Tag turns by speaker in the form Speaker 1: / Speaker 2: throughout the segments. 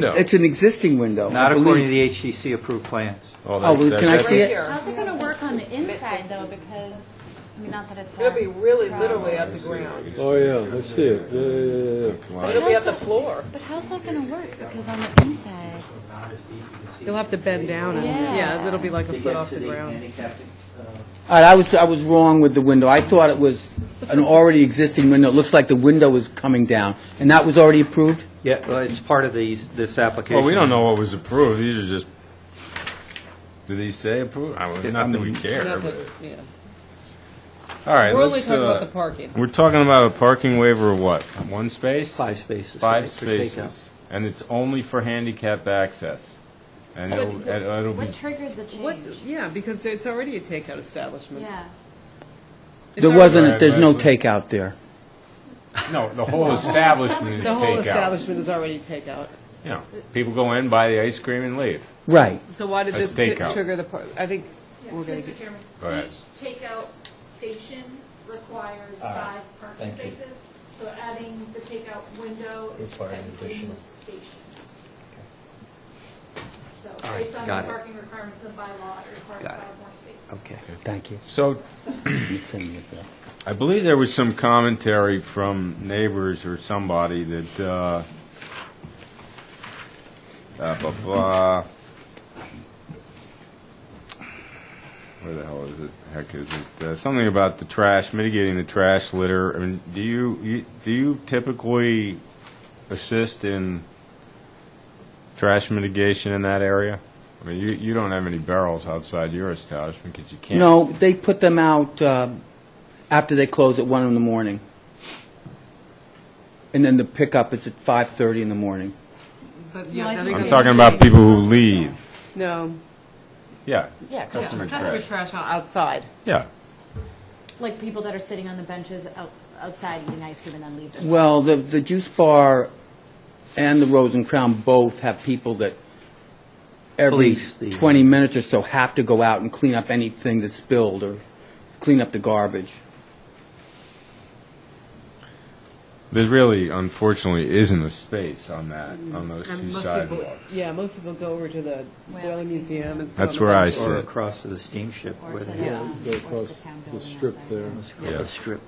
Speaker 1: window.
Speaker 2: It's an existing window, I
Speaker 3: Not according to
Speaker 2: believe.
Speaker 3: the HCC approved plans.
Speaker 1: Oh,
Speaker 2: Oh, well,
Speaker 1: that-
Speaker 2: can I
Speaker 1: that's-
Speaker 2: see it?
Speaker 4: How's it going to work on the inside, though, because, I mean, not that it's. um,
Speaker 5: It'll
Speaker 4: our
Speaker 5: be really literally
Speaker 4: problem.
Speaker 5: at the ground.
Speaker 6: Oh, yeah, I see it, yeah, yeah, yeah, yeah.
Speaker 5: It'll be at the floor.
Speaker 4: But how's that going to work, because on the inside?
Speaker 7: You'll have to bend down and,
Speaker 4: Yeah.
Speaker 7: yeah, it'll be like a foot off the ground.
Speaker 3: uh,
Speaker 2: All right, I was, I was wrong with the window. I thought it was an already existing window. It looks like the window is coming down, and that was already approved?
Speaker 3: Yeah, well, it's part of these, this application.
Speaker 1: Well, we don't know what was approved, these are just, do these say approved? I
Speaker 3: Yeah,
Speaker 1: mean, Not that we
Speaker 3: I mean-
Speaker 1: care,
Speaker 7: Not that-
Speaker 1: but,
Speaker 7: yeah.
Speaker 1: all right,
Speaker 7: We're only
Speaker 1: let's,
Speaker 7: talking about
Speaker 1: uh,
Speaker 7: the parking.
Speaker 1: we're talking about a parking waiver of what, one space?
Speaker 3: Five spaces.
Speaker 1: Five
Speaker 3: right, for takeout.
Speaker 1: spaces, and it's only for handicap access, and it'll, and it'll be,
Speaker 4: What triggered the
Speaker 7: What,
Speaker 4: change?
Speaker 7: yeah, because it's already a takeout establishment.
Speaker 4: Yeah.
Speaker 7: It's
Speaker 2: There
Speaker 7: already-
Speaker 2: wasn't, there's no
Speaker 1: Right,
Speaker 2: takeout there.
Speaker 1: no, the whole establishment is
Speaker 7: The whole
Speaker 1: takeout.
Speaker 7: establishment is already takeout.
Speaker 1: You know, people go in, buy the ice cream and leave,
Speaker 2: Right.
Speaker 7: So why did
Speaker 1: That's
Speaker 7: this
Speaker 1: takeout.
Speaker 7: get- trigger the, par- I think we're going to
Speaker 8: Mr.
Speaker 7: get,
Speaker 8: Chairman,
Speaker 1: Go ahead.
Speaker 8: each takeout station requires
Speaker 3: All right.
Speaker 8: five
Speaker 3: Thank
Speaker 8: parking
Speaker 3: you.
Speaker 8: spaces, so adding the takeout window is
Speaker 3: Require an
Speaker 8: technically
Speaker 3: additional.
Speaker 8: a station. So
Speaker 3: All right,
Speaker 8: based on
Speaker 3: got it.
Speaker 8: the parking requirements of the bylaw, it requires
Speaker 3: Got it.
Speaker 8: five more spaces.
Speaker 3: Okay.
Speaker 2: Thank you.
Speaker 1: so
Speaker 2: You send me a bill.
Speaker 1: I believe there was some commentary from neighbors or somebody that, uh, uh, blah, blah. Where the hell is it? Heck is it? Uh, Something about the trash, mitigating the trash litter. I mean, do you, you- do you typically assist in trash mitigation in that area? I mean, you, you don't have any barrels outside your establishment because you can't.
Speaker 2: No, they put them out uh, after they close at one in the morning. And then the pickup is at 5:30 in the morning.
Speaker 7: but
Speaker 4: No, I
Speaker 7: yeah, now they're
Speaker 4: think-
Speaker 1: I'm
Speaker 7: gonna-
Speaker 1: talking about people who leave.
Speaker 7: No.
Speaker 1: Yeah.
Speaker 4: Yeah,
Speaker 1: Customer
Speaker 7: Customer
Speaker 1: trash.
Speaker 7: trash out- outside.
Speaker 1: Yeah.
Speaker 4: Like people that are sitting on the benches out- outside eating ice cream and then leave. their-
Speaker 2: Well, the, the Juice Bar and the Rose and Crown both have people that every
Speaker 3: Police the- uh,
Speaker 2: 20 minutes or so have to go out and clean up anything that's spilled or clean up the garbage.
Speaker 1: There really, unfortunately, isn't a space on that, on those
Speaker 7: And
Speaker 1: two
Speaker 7: most people-
Speaker 1: sidewalks.
Speaker 7: Yeah, most people go over to the Whaling Museum and sit
Speaker 1: That's
Speaker 7: on the
Speaker 1: where I
Speaker 7: bench.
Speaker 1: sit.
Speaker 3: Or
Speaker 1: Sit.
Speaker 3: across to the steamship,
Speaker 4: Or
Speaker 3: where
Speaker 4: to
Speaker 3: they,
Speaker 4: the,
Speaker 3: yeah,
Speaker 4: um,
Speaker 6: Go
Speaker 4: or to
Speaker 6: across
Speaker 4: town
Speaker 6: the
Speaker 4: building
Speaker 6: strip
Speaker 4: outside.
Speaker 6: there.
Speaker 3: the strip.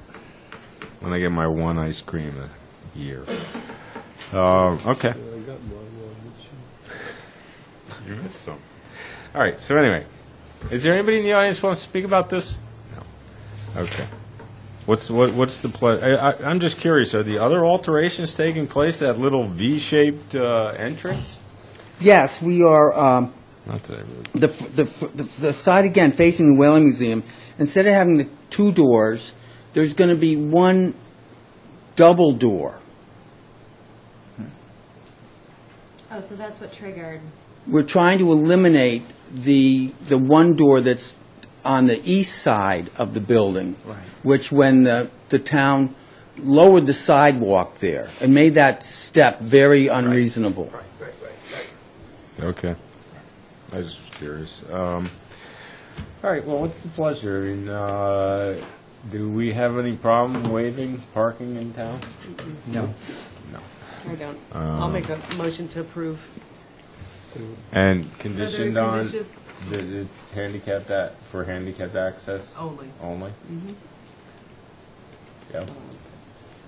Speaker 1: When I get my one ice cream a year. Um, Okay.
Speaker 6: I got one,
Speaker 1: You missed some. All right, so anyway, is there anybody in the audience who wants to speak about this? No. Okay. What's, what? what's the ple, I, I- I'm just curious, are the other alterations taking place, that little V-shaped uh, entrance?
Speaker 2: Yes, we are, um,
Speaker 1: Not that I really
Speaker 2: the, f- the, f- the the side again facing the Whaling Museum, instead of having the two doors, there's going to be one double door,
Speaker 4: Oh, so that's what triggered.
Speaker 2: we're trying to eliminate the, the one door that's on the east side of the building.
Speaker 3: Right.
Speaker 2: Which when the, the town lowered the sidewalk there and made that step very unreasonable.
Speaker 1: Okay. I was just curious. Um, All right, well, what's the pleasure? I mean, uh, do we have any problem waiving parking in town?
Speaker 3: No.
Speaker 7: I don't.
Speaker 1: um,
Speaker 7: I'll make a motion to approve.
Speaker 1: And conditioned
Speaker 7: Other
Speaker 1: on,
Speaker 7: conditions?
Speaker 1: that it's handicapped, a- for handicapped access?
Speaker 4: Oh.
Speaker 7: Only.
Speaker 1: Only?
Speaker 4: Mm-hmm.
Speaker 1: Yeah.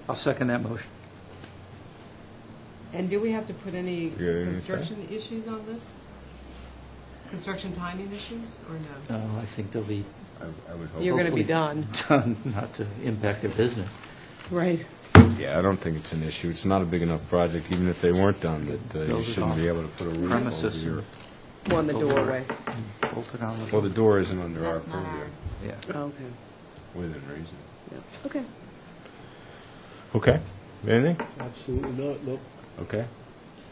Speaker 3: I'll second that motion.
Speaker 7: And do we have to put any
Speaker 1: got anything to say?
Speaker 7: construction issues on this? Construction timing issues, or no?
Speaker 3: Uh, I think they'll be
Speaker 1: I- I would
Speaker 7: You're
Speaker 1: hope.
Speaker 7: going to be
Speaker 3: hopefully.
Speaker 7: done,
Speaker 3: done not to impact their business.
Speaker 7: right?
Speaker 1: Yeah, I don't think it's an issue. It's not a big enough project, even if they weren't done, that uh, you
Speaker 3: Build it
Speaker 1: shouldn't
Speaker 3: off
Speaker 1: be able to put a roof over
Speaker 3: Premises.
Speaker 1: your...
Speaker 7: On the doorway.
Speaker 3: Bolt it on the.
Speaker 1: Well, the door isn't under our
Speaker 4: That's not
Speaker 1: purview,
Speaker 4: our-
Speaker 3: Yeah.
Speaker 7: Okay.
Speaker 1: within reason.
Speaker 7: Okay.
Speaker 1: Okay. Anything?
Speaker 6: Absolutely not, no.
Speaker 1: Okay.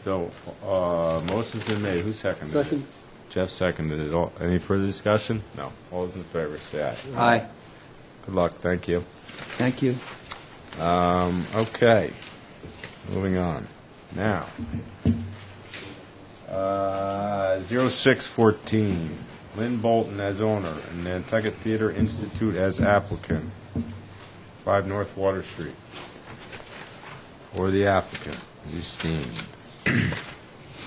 Speaker 1: So, uh, motion's been made. Who seconded it?
Speaker 6: Second,
Speaker 1: Jeff seconded it. All- Any further discussion? No. All those in favor, say aye.
Speaker 3: Aye.
Speaker 1: Good luck. Thank you.
Speaker 2: Thank you.
Speaker 1: Um, okay. Moving on. Now. Uh, 0614, Lynn Bolton as owner and Nantucket Theater Institute as applicant. 5 North Water Street. Or the applicant, Justine.